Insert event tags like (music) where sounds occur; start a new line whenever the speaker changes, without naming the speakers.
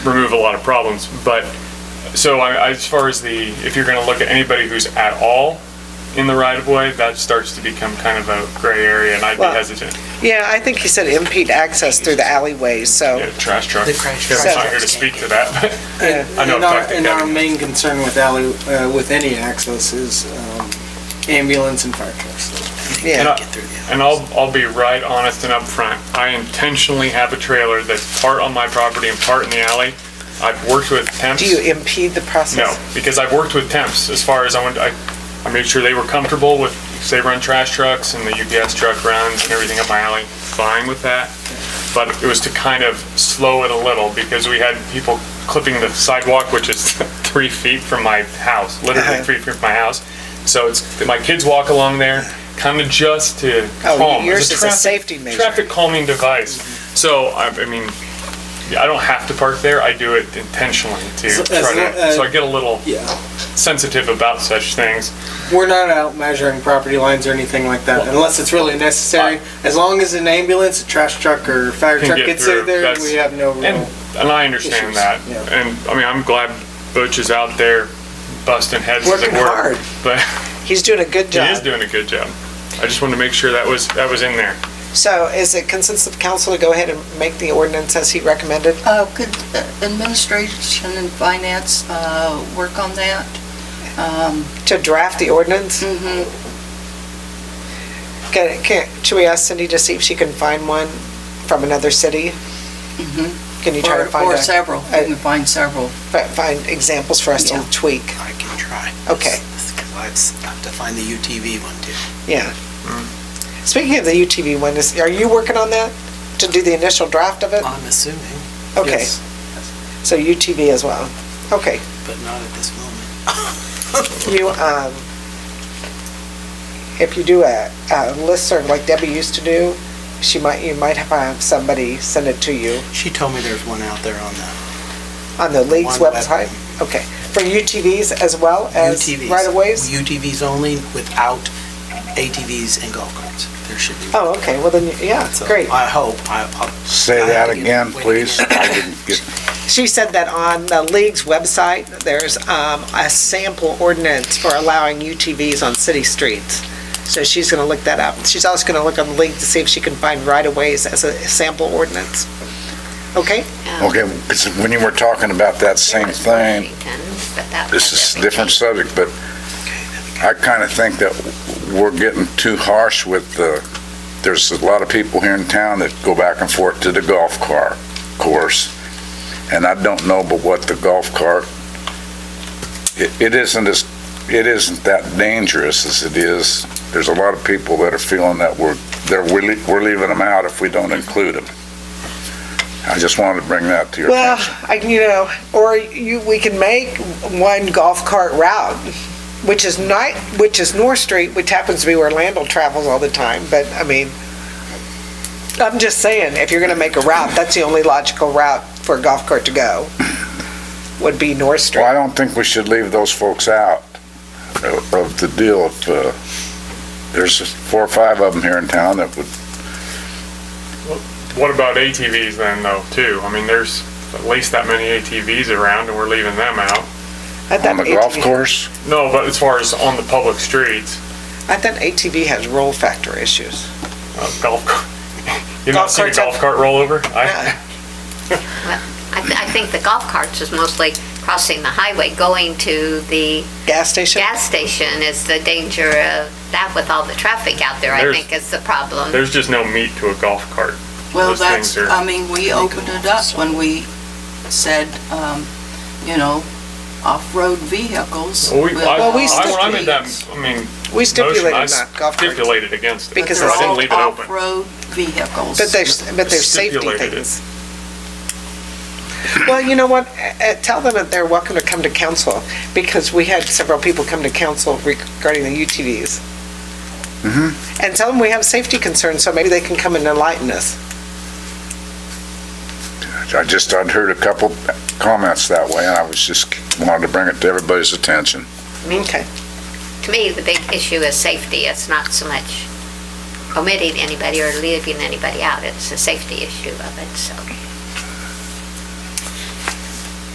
remove a lot of problems. But so I, I- as far as the, if you're going to look at anybody who's at all in the right of way, that starts to become kind of a gray area, and I'd be
Well-
hesitant.
Yeah, I think he said impede access through the alleyways,
Yeah,
so,
trash truck.
The crash
I'm
truck.
not here to speak to that. But
yeah.
I know
And our,
Dr.
and our
Kevin.
main concern with alley, uh, with any access is, um, ambulance and fire trucks.
And
yeah.
I- And I'll, I'll be right honest and upfront. I intentionally have a trailer that's part on my property and part in the alley. I've worked with temps.
Do you impede the
No,
process?
because I've worked with temps as far as I went, I, I made sure they were comfortable with, 'cause they run trash trucks and the UPS truck runs and everything up my alley, fine with that. But it was to kind of slow it a little because we had people clipping the sidewalk, which is (laughs) three feet from my house, literally
Uh-huh.
three feet from my house. So it's, my kids walk along there, kind of just to
Oh,
calm.
yours
It's
is a
traffic-
safety measure.
Traffic calming device. So, I, I mean, I don't have to park there, I do it intentionally to
So-
try
as lo-
to,
uh,
so I get a little
Yeah.
sensitive about such things.
We're not out measuring property lines or anything like that unless it's really necessary. As long as an ambulance, a trash truck or fire
Can
truck
get
gets there,
through,
there,
that's-
we have no
And,
real.
and I understand
Issues,
that.
yeah.
And, I mean, I'm glad Butch is out there busting heads as it
Working
were.
hard.
But
He's doing a good
he is
job.
doing a good job. I just wanted to make sure that was, that was in there.
So is it consensus of council to go ahead and make the ordinance as he recommended?
Uh, Could uh, administration and finance uh, work on that? Um,
To draft the ordinance?
mhm.
Can, can, should we ask Cindy to see if she can find one from another city?
Mhm.
Can you try
Or
to find
or
a,
several, you can find several.
fi- find examples for us to
Yeah.
tweak?
I can try.
Okay.
This- this- I have to find the UTV one too.
Yeah.
Hmm.
Speaking of the UTV one, is, are you working on that? To do the initial draft of it?
I'm assuming,
Uh,
Uh,
Okay,
Yes.
so UTV as well. Okay,
but not at this
(laughs)
moment.
you, um, if you do a, a listserv like Debbie used to do, she might, you might have somebody send it to you
She told me there's one out there on the
on the league's
One
website.
website.
Okay, for UTVs as well as
UTVs.
right-of-ways?
UTVs only without ATVs and golf carts. There should be. one.
Oh, okay, well then, yeah,
So
great.
I hope, I, I'll.
Say
I have
that
to get-
again,
wait,
please. I didn't get,
She said that on the league's website, there's um, a sample ordinance for allowing UTVs on city streets. So she's going to look that up. She's also going to look on the league to see if she can find right-of-ways as a sample ordinance. Okay?
Um,
okay, it's- when you were talking about that same thing, this is a different subject, but I kind of think that we're getting too harsh with the, there's a lot of people here in town that go back and forth to the golf car course, and I don't know but what the golf cart, it it isn't as, it isn't that dangerous as it is. There's a lot of people that are feeling that we're, they're, we're lea- we're leaving them out if we don't include them. I just wanted to bring that to your
Well,
attention.
I, you know, or you, we can make one golf cart route, which is night, which is North Street, which happens to be where Landell travels all the time, but I mean, I'm just saying, if you're gonna make a route, that's the only logical route for a golf cart to go, would be North
Well, I
Street.
don't think we should leave those folks out of of the deal. If, uh, There's four or five of them here in town that would,
What about ATVs then, though, too? I mean, there's at least that many ATVs around, and we're leaving them out.
I thought
on the golf
ATV
course,
No, but as far as on the public streets,
I thought ATV has roll factor issues.
uh, golf, cart- (laughs) you not
Golf
seen a
carts up-
golf cart rollover?
Uh,
I,
I, th- I think the golf carts is mostly crossing the highway, going to the
Gas station?
gas station is the danger of that with all the traffic out there, I
There's-
think is the
(laughs)
problem.
there's just no meat to a golf cart.
Well,
Those
that's,
things are-
I mean, we opened it up when we said, um, you know, off-road vehicles.
Well, we,
will
I,
Well, we
cross
I, when I made that,
streets,
I mean,
We
motion, I
stipulated not golf carts,
stipulated against it.
but
Because
so
they're
I didn't
all
leave it open.
Off-road vehicles.
but there's, but there's safety
Stipulated it.
things. Well, you know what, Uh, tell them that they're welcome to come to council, because we had several people come to council regarding the UTVs. And tell them we have safety concerns, so maybe they can come and enlighten us.
I just, I'd heard a couple comments that way, and I was just, wanted to bring it to everybody's attention.
Okay.
To me, the big issue is safety. It's not so much omitting anybody or leaving anybody out. It's a safety issue of it, so.